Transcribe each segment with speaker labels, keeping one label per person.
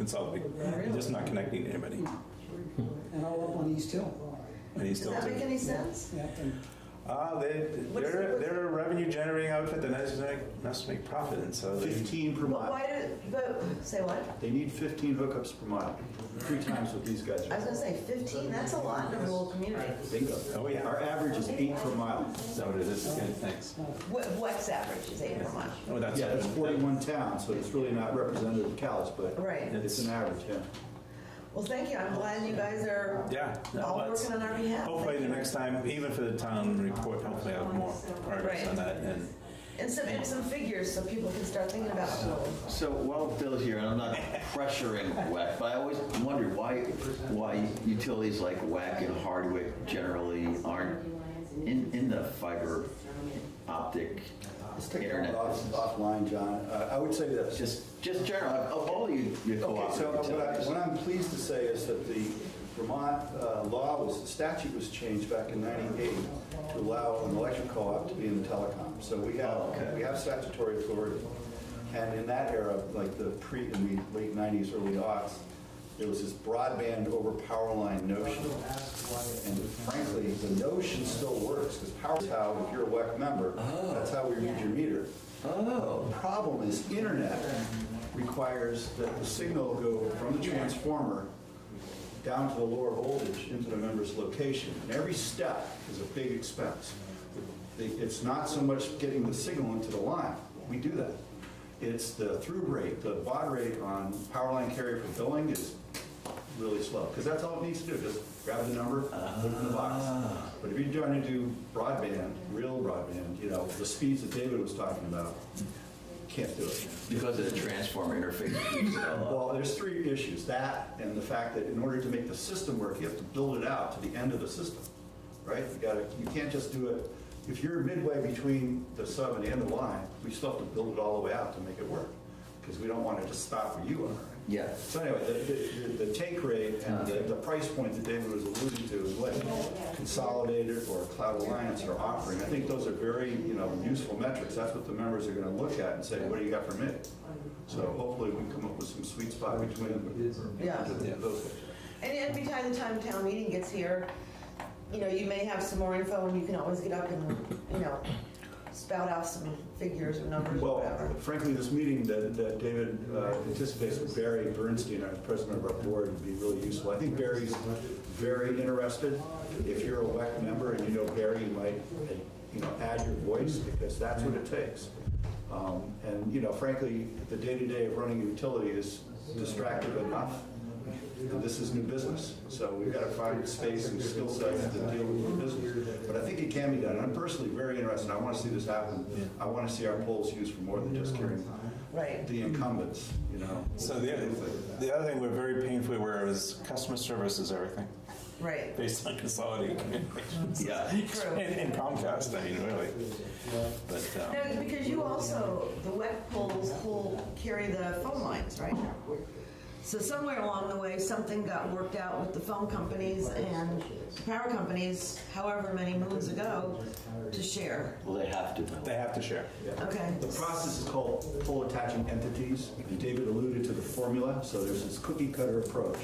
Speaker 1: consolidate. They're just not connecting to anybody.
Speaker 2: and all up on East Hill.
Speaker 1: And he's
Speaker 3: Hmm. Does
Speaker 1: still.
Speaker 3: that make any sense?
Speaker 2: Yeah, and
Speaker 1: Uh, they,
Speaker 3: What's the-
Speaker 1: they're, they're a revenue generating outfit that has to make, has to make profit, and so they,
Speaker 4: 15 per mile.
Speaker 3: Why do, but, say what?
Speaker 4: They need 15 hookups per mile, three times what these
Speaker 3: I
Speaker 4: guys
Speaker 3: was
Speaker 4: are.
Speaker 3: gonna say fifteen, that's a lot in a rural community.
Speaker 4: Bingo.
Speaker 1: Oh, yeah.
Speaker 4: Our average is eight per mile.
Speaker 5: So it is, good, thanks.
Speaker 3: What, what's average is eight per mile?
Speaker 1: oh, that's.
Speaker 4: Yeah, that's 41 towns, so it's really not representative of Cal's, but
Speaker 3: Right.
Speaker 4: it's an average, yeah.
Speaker 3: Well, thank you, I'm glad you guys are
Speaker 1: Yeah. no,
Speaker 3: all
Speaker 1: that's-
Speaker 3: working on our behalf.
Speaker 1: Hopefully the next time, even for the town report, hopefully I have more progress
Speaker 3: Right.
Speaker 1: on that, and
Speaker 3: And some, and some figures so people can start thinking about it.
Speaker 5: So while Bill's here, and I'm not pressuring WAC, but I always wondered why, why utilities like WAC and Hardwick generally aren't in, in the fiber optic
Speaker 4: Let's take that
Speaker 5: internet.
Speaker 4: off-
Speaker 5: business.
Speaker 4: offline, John. Uh, I would say this.
Speaker 5: Just, just general, of all you, your
Speaker 4: Okay, so
Speaker 5: cooperative
Speaker 4: what I-
Speaker 5: utilities.
Speaker 4: what I'm pleased to say is that the Vermont uh, law was, the statute was changed back in 98 to allow an electric co-op to be in the telecom. So we
Speaker 5: Oh,
Speaker 4: have, we have statutory authority. And in that era, like the pre, in the late 90s, early aughts, there was this broadband over power line notion. And frankly, the notion still works, because power is how, if you're a WEC member,
Speaker 5: Oh.
Speaker 4: that's how we read your meter. The problem is internet requires that the signal go from the transformer down to the lower voltage into the member's location. And every step is a big expense. It's not so much getting the signal into the line, we do that. It's the through rate, the baud rate on power line carrier for billing is really slow, because that's all it needs to do, just grab the number, put it in the box. But if you're trying to do broadband, real broadband, you know, the speeds that David was talking about, can't do it.
Speaker 5: Because of the transformer interface.
Speaker 4: Well, there's three issues, that and the fact that in order to make the system work, you have to build it out to the end of the system, right? You gotta, you can't just do it, if you're midway between the sub and the end of the line, we still have to build it all the way out to make it work, because we don't want to just stop where you are.
Speaker 5: Yeah.
Speaker 4: So anyway, the- the, the take rate and the, the price point that David was alluding to, is what Consolidated or Cloud Alliance are offering, I think those are very, you know, useful metrics, that's what the members are gonna look at and say, what do you got for me? So hopefully we can come up with some sweet spot between them.
Speaker 3: Yeah.
Speaker 4: Those-
Speaker 3: And every time the time town meeting gets here, you know, you may have some more info and you can always get up and, you know, spout off some figures or numbers or
Speaker 4: Well,
Speaker 3: whatever.
Speaker 4: frankly, this meeting that, that David uh, anticipates with Barry Bernstein, our president of our board, would be really useful. I think Barry's very interested. If you're a WEC member and you know Barry, you might, uh, you know, add your voice because that's what it takes. Um, And, you know, frankly, the day-to-day of running a utility is distractive enough. And This is new business, so we've got to find space and skill sets to deal with new business. But I think it can be done. I'm personally very interested, I want to see this happen. I want to see our polls used for more than just carrying
Speaker 3: Right.
Speaker 4: the incumbents, you know?
Speaker 1: So the, the other thing we're very painfully aware of is customer service is everything,
Speaker 3: Right.
Speaker 1: based on consolidated communications.
Speaker 5: Yeah.
Speaker 3: True.
Speaker 1: And and Comcast, I mean, really. But, um,
Speaker 3: No, it's because you also, the WEC poles pull, carry the phone lines, right? So somewhere along the way, something got worked out with the phone companies and the power companies, however many moons ago, to share,
Speaker 5: Well, they have to.
Speaker 1: they have to share.
Speaker 3: okay?
Speaker 4: The process is called poll attaching entities. And David alluded to the formula, so there's this cookie cutter approach.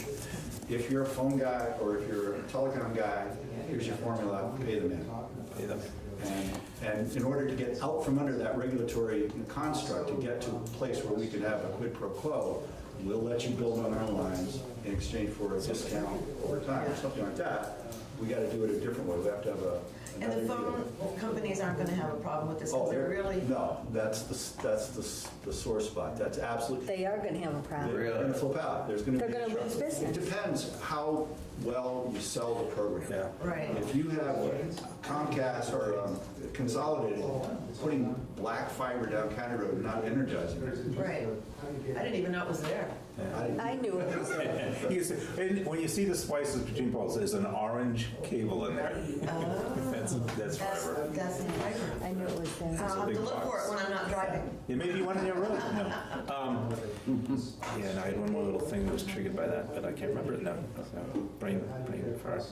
Speaker 4: If you're a phone guy or if you're a telecom guy, here's your formula, pay the man.
Speaker 1: Pay them.
Speaker 4: And- And in order to get out from under that regulatory construct, to get to a place where we could have a quid pro quo, we'll let you build on our lines in exchange for a discount over time, or something like that, we gotta do it a different way, we have to have a.
Speaker 3: And the
Speaker 4: another deal.
Speaker 3: phone companies aren't gonna have a problem with this,
Speaker 4: Oh,
Speaker 3: because they're really,
Speaker 4: No, that's the, s- that's the, s- the sore spot, that's absolutely.
Speaker 6: They are going to have a problem.
Speaker 4: They're gonna flip out, there's gonna be.
Speaker 6: They're gonna lose business.
Speaker 4: It depends how well you sell the program.
Speaker 1: Yeah.
Speaker 3: right,
Speaker 4: If you have Comcast or um, Consolidated putting black fiber down County Road and not energizing it,
Speaker 3: right. I didn't even know it was there.
Speaker 4: I-
Speaker 6: I knew it was there.
Speaker 1: You see- and when you see the slices between poles, there's an orange cable in there. That's, that's
Speaker 3: Oh, That's,
Speaker 1: forever.
Speaker 3: that's the fiber.
Speaker 6: I knew it was there.
Speaker 3: I'll have to look for it when I'm not driving.
Speaker 1: It may be one in your road, no. Um, Yeah, and I had one more little thing that was triggered by that, but I can't remember it now. So, Brain, brain fart.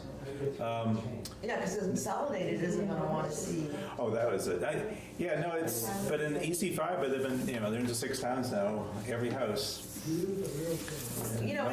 Speaker 1: Um,
Speaker 3: Yeah, because Consolidated isn't gonna wanna see,
Speaker 1: Oh, that was it. E I, yeah, no, it's, but in EC5, but they've been, you know, they're into six towns now. Every house
Speaker 2: Yes.